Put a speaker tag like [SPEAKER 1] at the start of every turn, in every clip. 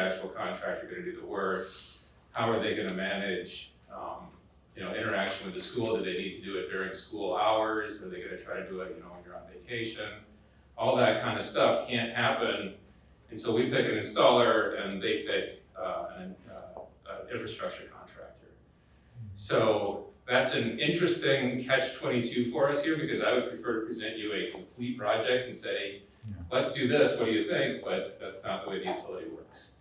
[SPEAKER 1] actual contractor gonna do the work? How are they gonna manage, um, you know, interaction with the school? Do they need to do it during school hours? Are they gonna try to do it, you know, when you're on vacation? All that kind of stuff can't happen until we pick an installer and they pick, uh, an, uh, an infrastructure contractor. So that's an interesting catch twenty-two for us here, because I would prefer to present you a complete project and say, let's do this, what do you think? But that's not the way the utility works.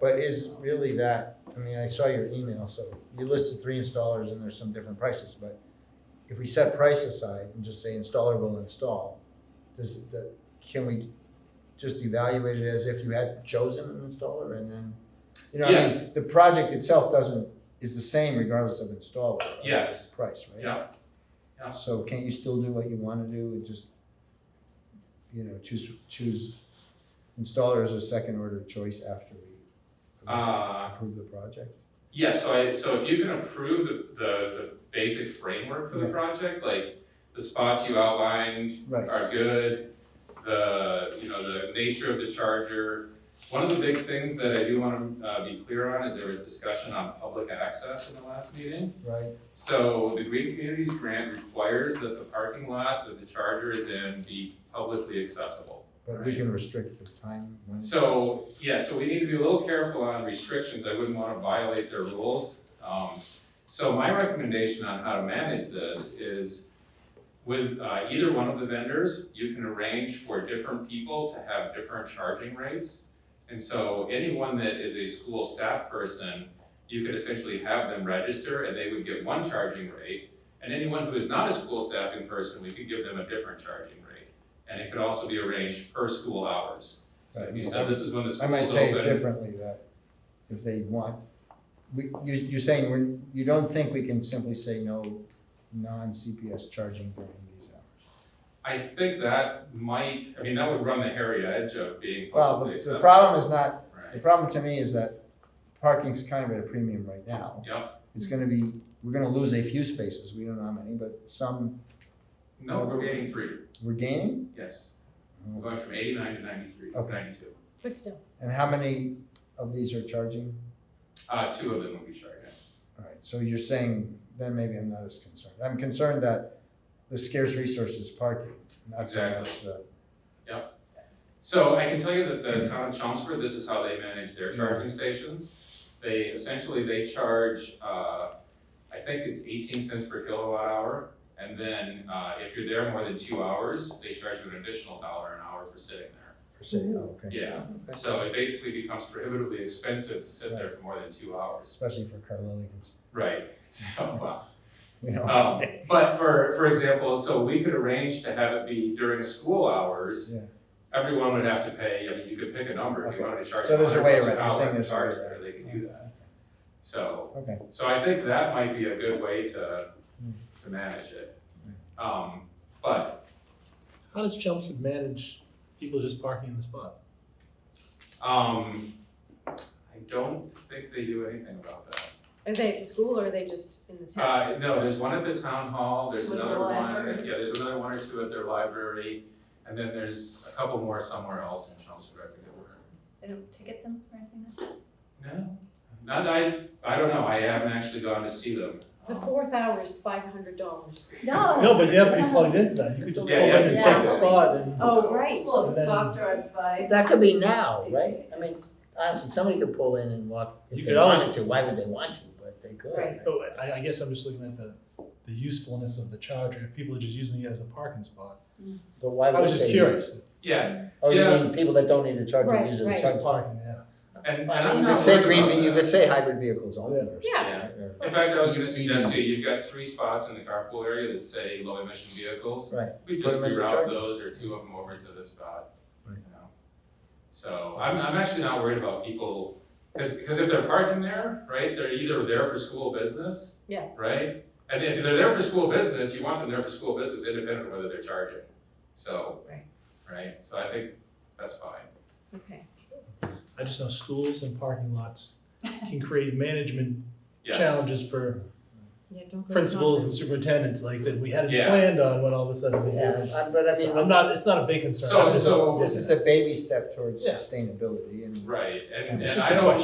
[SPEAKER 2] But is really that, I mean, I saw your email, so you listed three installers and there's some different prices, but if we set price aside and just say installer will install, does, it- the- can we just evaluate it as if you had chosen an installer and then? You know, I mean,
[SPEAKER 1] Yes.
[SPEAKER 2] the project itself doesn't, is the same regardless of installer. right?
[SPEAKER 1] Yes.
[SPEAKER 2] Price, right?
[SPEAKER 1] Yeah. Yeah.
[SPEAKER 2] So can't you still do what you wanna do and just, you know, choose, choose installer as a second order of choice after we
[SPEAKER 1] Uh,
[SPEAKER 2] approve the project?
[SPEAKER 1] yeah, so I, so if you can approve the, the, the basic framework for the
[SPEAKER 2] Yeah.
[SPEAKER 1] project, like the spots you outlined,
[SPEAKER 2] Right,
[SPEAKER 1] are good, the, you know, the nature of the charger. One of the big things that I do want to uh, be clear on is there was discussion on public access in the last meeting.
[SPEAKER 2] right,
[SPEAKER 1] So the Green Communities Grant requires that the parking lot that the charger is in be publicly accessible.
[SPEAKER 2] but we can restrict the time when.
[SPEAKER 1] So, yeah, so we need to be a little careful on restrictions, I wouldn't wanna violate their rules. Um, so my recommendation on how to manage this is with, uh, either one of the vendors, you can arrange for different people to have different charging rates. And so anyone that is a school staff person, you could essentially have them register and they would get one charging rate. And anyone who is not a school staffing person, we could give them a different charging rate. And it could also be arranged per school hours. So if you said this is when the
[SPEAKER 2] I
[SPEAKER 1] school's open.
[SPEAKER 2] might say it differently, that if they want, we, you, you're saying we're, you don't think we can simply say no non-CPS charging during these hours?
[SPEAKER 1] I think that might, I mean, that would run the hairy edge of being
[SPEAKER 2] Well,
[SPEAKER 1] publicly
[SPEAKER 2] the, the
[SPEAKER 1] accessible.
[SPEAKER 2] problem is not, the
[SPEAKER 1] Right,
[SPEAKER 2] problem to me is that parking's kind of at a premium right now.
[SPEAKER 1] Yep.
[SPEAKER 2] It's gonna be, we're gonna lose a few spaces, we don't know how many, but some
[SPEAKER 1] no, we're getting three,
[SPEAKER 2] we're gaining.
[SPEAKER 1] yes, we're going from eighty-nine to ninety-three,
[SPEAKER 2] Okay.
[SPEAKER 1] ninety-two.
[SPEAKER 3] But still,
[SPEAKER 2] And how many of these are charging?
[SPEAKER 1] Uh, two of them will be charged.
[SPEAKER 2] All right, so you're saying, then maybe I'm not as concerned. I'm concerned that the scarce resource is parking, not so much the.
[SPEAKER 1] So I can tell you that the town of Chelmsford, this is how they manage their
[SPEAKER 2] Mhm.
[SPEAKER 1] charging stations. They, essentially, they charge, uh, I think it's eighteen cents per kilowatt hour. And then, uh, if you're there more than two hours, they charge you an additional dollar an hour for sitting there.
[SPEAKER 2] For sale, oh, okay.
[SPEAKER 1] Yeah, so it basically becomes prohibitively expensive to sit there for more than two hours.
[SPEAKER 2] Especially for Carlilians,
[SPEAKER 1] Right, so, uh,
[SPEAKER 2] you know?
[SPEAKER 4] Oh.
[SPEAKER 1] um, but for, for example, so we could arrange to have it be during school hours.
[SPEAKER 2] Yeah.
[SPEAKER 1] Everyone would have to pay, I mean, you could pick a number, if you wanted to charge
[SPEAKER 2] So
[SPEAKER 1] a
[SPEAKER 2] there's a way
[SPEAKER 1] hundred bucks an
[SPEAKER 2] around. You're saying
[SPEAKER 1] hour to charge
[SPEAKER 2] there's a way around.
[SPEAKER 1] there, they could do that. So,
[SPEAKER 2] Okay, Hmm.
[SPEAKER 1] so I think that might be a good way to, to manage it. Um, but
[SPEAKER 4] How does Chelsea manage people just parking in the spot?
[SPEAKER 1] Um, I don't think they do anything about that.
[SPEAKER 3] are they at the school or are they just in the town?
[SPEAKER 1] Uh, no, there's one at the town hall, there's
[SPEAKER 3] With the
[SPEAKER 1] another one,
[SPEAKER 3] library?
[SPEAKER 1] yeah, there's another one or two at their library, and then there's a couple more somewhere else in Chelmsford, I forget where.
[SPEAKER 5] They don't ticket them or anything?
[SPEAKER 1] No, not, I, I don't know, I haven't actually gone to see them.
[SPEAKER 3] The
[SPEAKER 1] Um,
[SPEAKER 3] fourth hour is five hundred dollars.
[SPEAKER 5] No.
[SPEAKER 4] No, but you have to be plugged in for that, you could just pull
[SPEAKER 1] Yeah,
[SPEAKER 4] in
[SPEAKER 1] yeah,
[SPEAKER 4] and
[SPEAKER 5] yeah.
[SPEAKER 4] take the spot and.
[SPEAKER 3] Oh, right.
[SPEAKER 6] Well, if a
[SPEAKER 4] Then-
[SPEAKER 6] cop drives by.
[SPEAKER 7] That could be now, right? I mean, honestly, somebody could pull in and walk
[SPEAKER 4] You
[SPEAKER 7] if
[SPEAKER 4] could
[SPEAKER 7] they
[SPEAKER 4] always-
[SPEAKER 7] wanted to. Why would they want to? But they could.
[SPEAKER 3] Right.
[SPEAKER 4] Oh, I, I guess I'm just looking at the, the usefulness of the charger, if people are just using it as a parking spot.
[SPEAKER 7] But why would
[SPEAKER 4] I was
[SPEAKER 7] they?
[SPEAKER 4] just curious,
[SPEAKER 1] Yeah,
[SPEAKER 7] Oh, you
[SPEAKER 1] Yeah.
[SPEAKER 7] mean people that don't need a charger
[SPEAKER 3] Right,
[SPEAKER 7] use it
[SPEAKER 3] right.
[SPEAKER 7] as a
[SPEAKER 4] just
[SPEAKER 7] charger?
[SPEAKER 4] parking, yeah.
[SPEAKER 1] and, and
[SPEAKER 7] Well, I
[SPEAKER 1] I'm
[SPEAKER 7] mean, You
[SPEAKER 1] not worried
[SPEAKER 7] could say green,
[SPEAKER 1] about
[SPEAKER 7] ve- you
[SPEAKER 1] that.
[SPEAKER 7] could say hybrid vehicles only. or something,
[SPEAKER 3] Yeah.
[SPEAKER 1] Yeah.
[SPEAKER 7] or-
[SPEAKER 1] In fact, I was gonna
[SPEAKER 7] You- you-
[SPEAKER 1] suggest to you, you've got three spots in the carpool area that say low emission vehicles.
[SPEAKER 7] Right.
[SPEAKER 1] We
[SPEAKER 7] Put
[SPEAKER 1] just
[SPEAKER 7] them into
[SPEAKER 1] reroute
[SPEAKER 7] charges.
[SPEAKER 1] those or two of them over to this spot, you
[SPEAKER 7] Right.
[SPEAKER 1] know? So I'm, I'm actually not worried about people, cause, 'cause if they're parking there, right, they're either there for school business.
[SPEAKER 3] Yeah.
[SPEAKER 1] Right? And if they're there for school business, you want them there for school business independent of whether they're charging, so.
[SPEAKER 3] Right.
[SPEAKER 1] Right, so I think that's fine.
[SPEAKER 3] Okay.
[SPEAKER 4] I just know schools and parking lots can create management
[SPEAKER 1] Yes.
[SPEAKER 4] challenges for
[SPEAKER 3] Yeah, don't go.
[SPEAKER 4] principals and superintendents like that we hadn't
[SPEAKER 1] Yeah.
[SPEAKER 4] planned on when all of a sudden we
[SPEAKER 7] Yeah,
[SPEAKER 4] did.
[SPEAKER 7] I- but I mean.
[SPEAKER 4] So I'm not, it's not a big concern.
[SPEAKER 1] So-
[SPEAKER 4] It's just-
[SPEAKER 1] so-
[SPEAKER 2] This is a baby step towards
[SPEAKER 4] Yeah.
[SPEAKER 2] sustainability and.
[SPEAKER 1] Right, and,
[SPEAKER 2] It's
[SPEAKER 1] and
[SPEAKER 4] just
[SPEAKER 1] I
[SPEAKER 4] a
[SPEAKER 1] don't,